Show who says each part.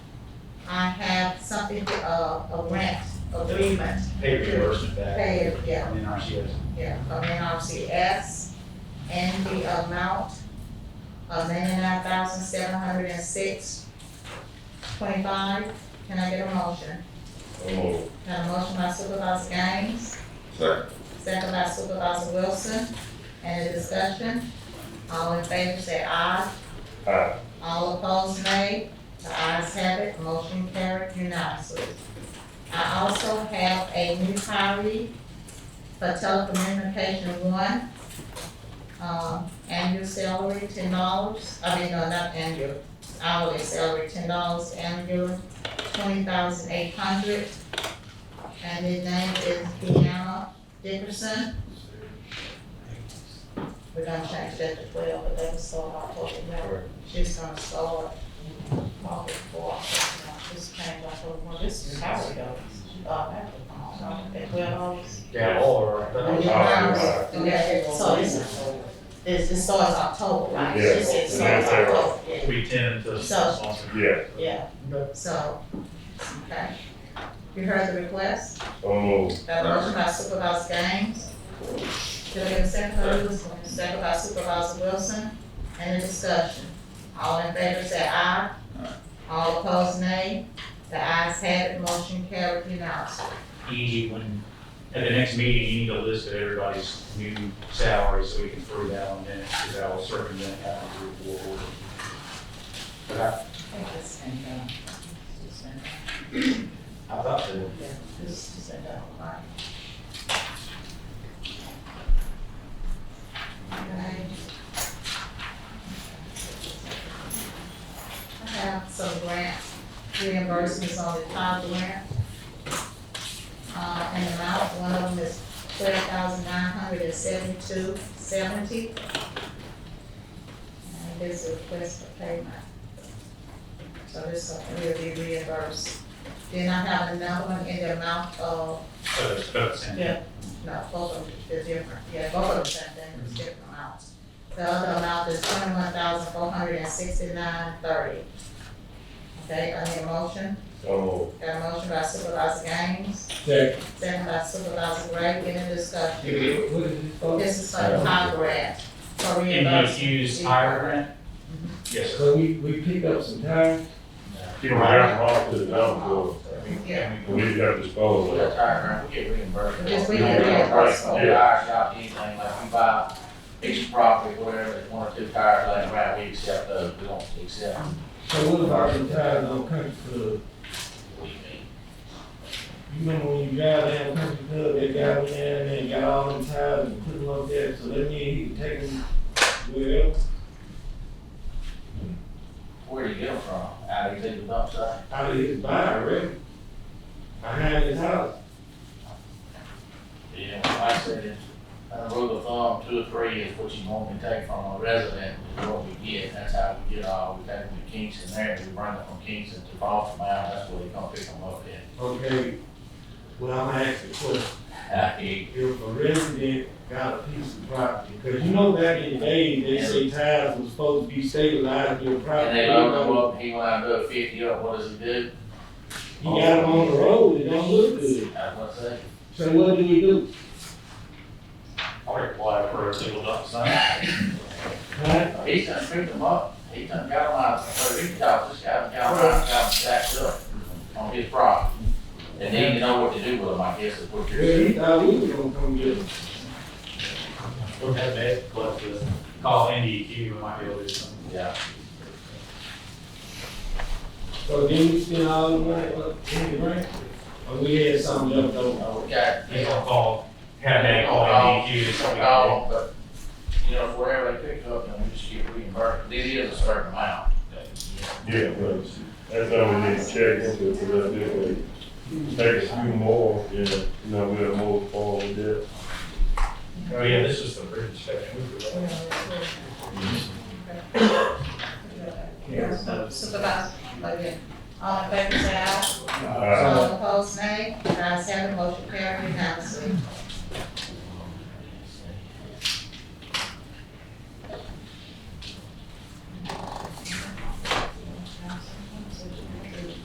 Speaker 1: I have something, uh, a rent agreement,
Speaker 2: pay reimbursement back
Speaker 1: paid, yeah,
Speaker 2: from NRCS.
Speaker 1: yeah, from NRCS and the amount of ninety-nine thousand seven hundred and six twenty-five. Can I get a motion?
Speaker 3: So moved.
Speaker 1: Got a motion by Supervisor Gaines,
Speaker 3: Second.
Speaker 1: second by Supervisor Wilson. Any discussion? All in favor say aye.
Speaker 3: Aye.
Speaker 1: All opposed, nay. The ayes have it, motion carried unanimously. I also have a new hiree for telecommunication one. Um, annual salary ten dollars, I mean, no, not annual, hourly salary ten dollars, annual twenty thousand eight hundred. And his name is Deanna Dickerson. We're gonna change that to twelve, but that was so hard for the number. She's gonna start market four, she's paying like, well, this is how it goes. Uh, that's, uh, that well,
Speaker 2: Yeah, or, but I'm-
Speaker 3: yeah.
Speaker 1: so this is, this, this starts October, right?
Speaker 3: Yeah.
Speaker 1: She said it
Speaker 3: Yeah,
Speaker 1: starts
Speaker 3: that's right.
Speaker 1: October, yeah,
Speaker 2: we tend to
Speaker 1: So-
Speaker 2: sponsor.
Speaker 3: Yeah.
Speaker 1: yeah, so, okay. You heard the request,
Speaker 3: So moved.
Speaker 1: got a motion by Supervisor Gaines. Did I get a second by Wilson? Second by Supervisor Wilson, any discussion? All in favor say aye. All opposed nay. The ayes have it, motion carried unanimously.
Speaker 2: E, when, at the next meeting, you need a list of everybody's new salaries so we can prove that on minutes, because that will circumvent having to do a board order. But I, I thought that,
Speaker 1: Okay. I have some grant reimbursements on the top grant. Uh, and amount, one of them is twelve thousand nine hundred and seventy-two seventy. And this is request for payment. So this will be reimbursed. Then I have another one in the amount of,
Speaker 2: so it's about the same.
Speaker 1: Yeah. no, both of them is different, yeah, both of them same thing, it's different amounts. The other amount is twenty-one thousand four hundred and sixty-nine thirty. Okay, I need a motion,
Speaker 3: So moved.
Speaker 1: got a motion by Supervisor Gaines,
Speaker 4: Second.
Speaker 1: second by Supervisor Gray, any discussion?
Speaker 4: What is it for?
Speaker 1: This is for the high grant, for
Speaker 2: And
Speaker 1: reimbursement.
Speaker 2: you use higher grant?
Speaker 1: Mm-hmm.
Speaker 2: Yes, sir.
Speaker 4: So we, we pick up some tires,
Speaker 3: Keep them out of off to the dumpster.
Speaker 1: Yeah.
Speaker 3: We got to dispose of
Speaker 5: That's our, grant. we get reimbursed.
Speaker 1: Yes, we
Speaker 5: don't
Speaker 1: get
Speaker 5: get
Speaker 1: reimbursed.
Speaker 5: Like, we hire out anything, like we buy each property, whatever, it's one or two tires, like, right, we accept those, we don't accept.
Speaker 4: so what about some tires on Country Club?
Speaker 5: what we need.
Speaker 4: You remember when you drive down Country Club, that guy went down there and got all them tires and put them up there, so that means he can take them wherever?
Speaker 5: Where do you get them from? Out of these little dump sites?
Speaker 4: Out of his barn, really? Behind his house?
Speaker 5: Yeah, like I said, it's, a rule of thumb, two or three is what you normally take from a resident, is what we get, that's how we get all, we take them to Kingston there, we bring them from Kingston to Baltimore, that's where they gonna pick them up
Speaker 4: Okay, well, I'm gonna ask you a question.
Speaker 5: at. I hear
Speaker 4: If a resident got a piece of property, cause you know back in the day, they say tires was supposed to be stabilized in your property.
Speaker 5: And they load him up, he wound up fifty up, what does he do?
Speaker 4: You got them on the road, it don't look good.
Speaker 5: That's what I say.
Speaker 4: So what do we do?
Speaker 2: I'll apply for a single dump site.
Speaker 4: Huh?
Speaker 5: He's done screwed them up, he's done got them out, so he got, this guy got them out, got them stacked up on his property. And then you know what to do with them, I guess, is what you're
Speaker 4: Well, he
Speaker 5: saying.
Speaker 4: thought we was gonna come get him.
Speaker 2: Don't have that, but uh, call NDEQ, we might be able to do something.
Speaker 5: Yeah,
Speaker 4: So then we spent all the money, uh, in the grant, or we had some left over.
Speaker 5: Uh, we got,
Speaker 2: They
Speaker 5: you
Speaker 2: don't
Speaker 5: know,
Speaker 2: call, have that call NDEQ, it's something.
Speaker 5: all, but, you know, wherever they pick up, and we just get reimbursed, this is a certain amount.
Speaker 3: Yeah, but that's how we need to check into it, because that this way, take a few more, yeah, you know, we'll move forward with that.
Speaker 2: Oh, yeah, this is the bridge section. We forgot.
Speaker 1: Supervisor, okay, all in favor say aye.
Speaker 3: All right.
Speaker 1: All opposed, nay. The ayes have it, motion carried unanimously.